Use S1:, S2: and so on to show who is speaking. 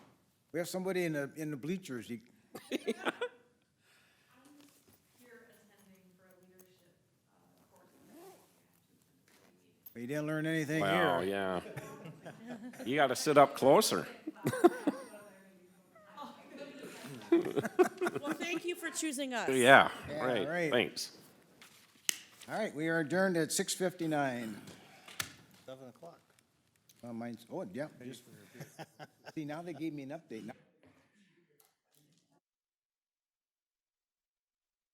S1: We have somebody in the, in the bleachers. He-
S2: here attending for a leadership uh, course.
S1: He didn't learn anything
S3: Wow,
S1: here.
S3: yeah. You gotta sit up closer.
S4: Well, thank you for choosing us.
S3: Yeah,
S1: Yeah,
S3: right,
S1: right.
S3: thanks.
S1: All right, we are adjourned at six fifty-nine.
S5: Seven o'clock.
S1: Oh, mine's, oh, yeah. just- See, now they gave me an update. Now-